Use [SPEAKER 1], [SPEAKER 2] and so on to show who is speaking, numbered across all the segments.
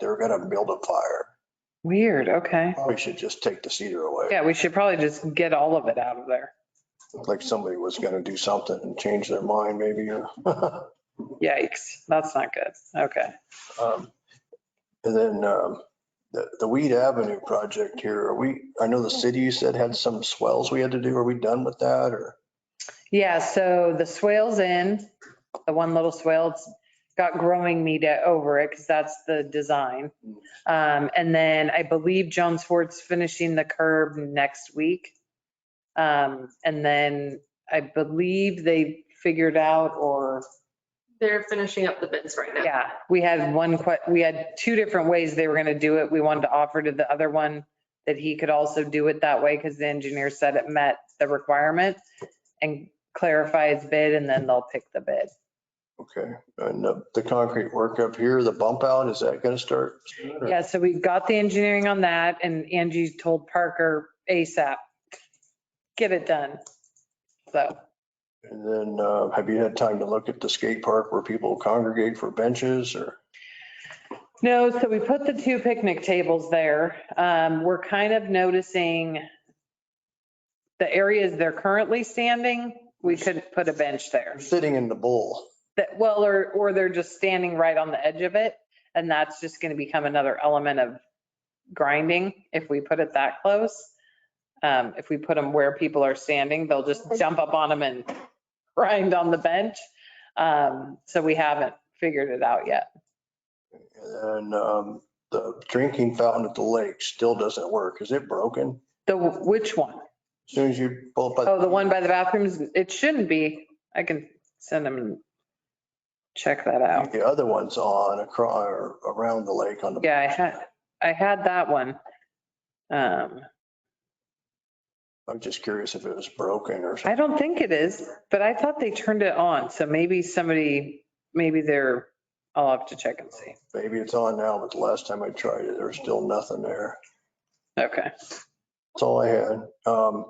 [SPEAKER 1] They're gonna build a fire.
[SPEAKER 2] Weird, okay.
[SPEAKER 1] We should just take the cedar away.
[SPEAKER 2] Yeah, we should probably just get all of it out of there.
[SPEAKER 1] Looked Like somebody was gonna do something and change their mind maybe. or-
[SPEAKER 2] Yikes, that's not good. Okay.
[SPEAKER 1] Um, And then um, the, the Weed Avenue project here, are we, I know the city you said had some swells we had to do. Are we done with that or?
[SPEAKER 2] Yeah, so the swale's in, the one little swale, it's got growing media over it because that's the design. Um, and then I believe Joan Swartz finishing the curb next week. Um, and then I believe they figured out or,
[SPEAKER 3] They're finishing up the bids right now.
[SPEAKER 2] yeah, we had one que, we had two different ways they were going to do it. We wanted to offer to the other one that he could also do it that way because the engineer said it met the requirement and clarify his bid and then they'll pick the bid.
[SPEAKER 1] Okay, and uh, the concrete work up here, the bump out, is that gonna start?
[SPEAKER 2] Yeah, so we got the engineering on that and Angie told Parker ASAP, get it done. So,
[SPEAKER 1] And then uh, have you had time to look at the skate park where people congregate for benches or?
[SPEAKER 2] no, so we put the two picnic tables there. Um, we're kind of noticing the areas they're currently standing, we couldn't put a bench there.
[SPEAKER 1] Sitting in the bowl.
[SPEAKER 2] That, well, or, or they're just standing right on the edge of it. And that's just going to become another element of grinding if we put it that close. Um, if we put them where people are standing, they'll just jump up on them and grind on the bench. Um, so we haven't figured it out yet.
[SPEAKER 1] And um, the drinking fountain at the lake still doesn't work. Is it broken?
[SPEAKER 2] The, which one?
[SPEAKER 1] As Soon as you pull up.
[SPEAKER 2] Oh, the one by the bathrooms? It shouldn't be. I can send them and check that out.
[SPEAKER 1] The other one's on across, around the lake on the.
[SPEAKER 2] Yeah, I had, I had that one. Um,
[SPEAKER 1] I'm just curious if it was broken or something.
[SPEAKER 2] I don't think it is, but I thought they turned it on. So maybe somebody, maybe they're, I'll have to check and see.
[SPEAKER 1] Maybe it's on now, but the last time I tried it, there was still nothing there.
[SPEAKER 2] Okay.
[SPEAKER 1] That's all I had. Um,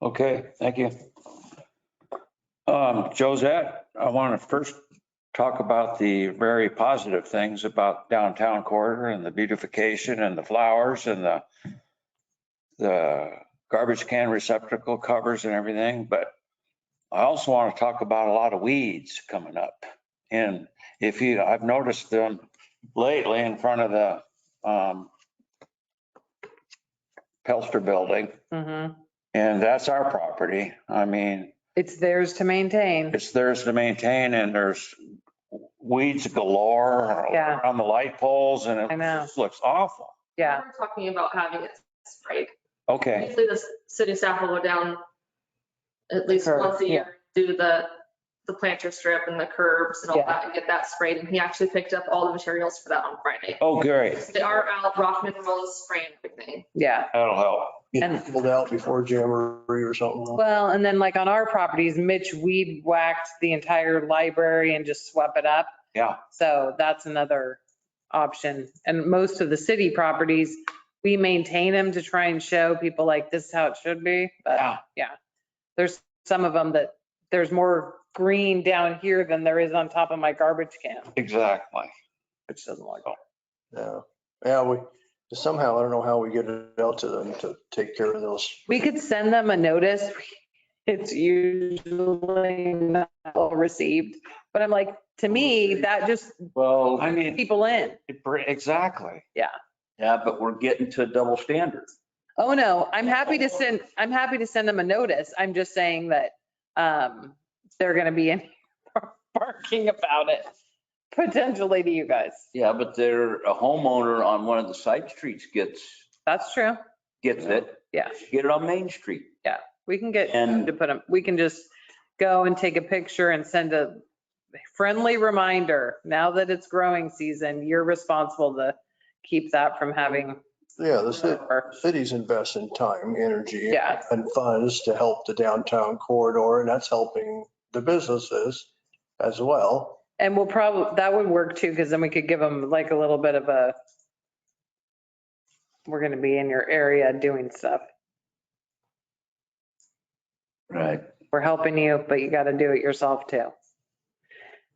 [SPEAKER 4] Okay, thank you. Um, Josette, I want to first talk about the very positive things about downtown corridor and the beautification and the flowers and the the garbage can receptacle covers and everything, but I also want to talk about a lot of weeds coming up. And if you, I've noticed them lately in front of the um Pelster Building.
[SPEAKER 2] hmm
[SPEAKER 4] And that's our property. I mean,
[SPEAKER 2] It's theirs to maintain.
[SPEAKER 4] it's theirs to maintain and there's weeds galore
[SPEAKER 2] Yeah.
[SPEAKER 4] on the light poles and
[SPEAKER 2] I
[SPEAKER 4] it
[SPEAKER 2] know.
[SPEAKER 4] just looks awful.
[SPEAKER 2] Yeah.
[SPEAKER 3] We're talking about having it sprayed.
[SPEAKER 4] Okay,
[SPEAKER 3] Usually the s- city staff will go down at least
[SPEAKER 2] curb,
[SPEAKER 3] once a
[SPEAKER 2] yeah.
[SPEAKER 3] year, do the, the planter strip and the curbs and all
[SPEAKER 2] Yeah.
[SPEAKER 3] that and get that sprayed. And he actually picked up all the materials for that on Friday.
[SPEAKER 4] oh, great.
[SPEAKER 3] They are out, rock minerals, spraying everything.
[SPEAKER 2] Yeah.
[SPEAKER 4] That'll help.
[SPEAKER 1] it
[SPEAKER 2] And-
[SPEAKER 1] pulled out before Jamboree or something.
[SPEAKER 2] Well, and then like on our properties, Mitch weed whacked the entire library and just swept it up.
[SPEAKER 4] Yeah.
[SPEAKER 2] So that's another option. And most of the city properties, we maintain them to try and show people like this is how it should be. But
[SPEAKER 4] Yeah.
[SPEAKER 2] yeah, there's some of them that there's more green down here than there is on top of my garbage can,
[SPEAKER 4] Exactly. Oh.
[SPEAKER 2] which doesn't look.
[SPEAKER 1] Yeah, yeah, we, somehow, I don't know how we get it out to them to take care of those.
[SPEAKER 2] We could send them a notice. It's usually not well received, but I'm like, to me, that just
[SPEAKER 5] Well,
[SPEAKER 4] I mean,
[SPEAKER 2] people in.
[SPEAKER 4] it br- exactly.
[SPEAKER 5] yeah, but we're getting to a double standard.
[SPEAKER 2] Oh, no, I'm happy to send, I'm happy to send them a notice. I'm just saying that um, they're going to be in barking about it, potentially to you guys.
[SPEAKER 5] Yeah, but they're a homeowner on one of the side streets gets,
[SPEAKER 2] That's true.
[SPEAKER 5] gets it.
[SPEAKER 2] Yeah.
[SPEAKER 5] Get it on Main Street.
[SPEAKER 2] We can get
[SPEAKER 5] And-
[SPEAKER 2] to put them, we can just go and take a picture and send a friendly reminder. Now that it's growing season, you're responsible to keep that from having.
[SPEAKER 1] Yeah, the ci- cities invest in time, energy.
[SPEAKER 2] Yeah.
[SPEAKER 1] And funds to help the downtown corridor, and that's helping the businesses as well.
[SPEAKER 2] And we'll probably, that would work too, because then we could give them like a little bit of a, we're going to be in your area doing stuff.
[SPEAKER 5] Right.
[SPEAKER 2] We're helping you, but you got to do it yourself too.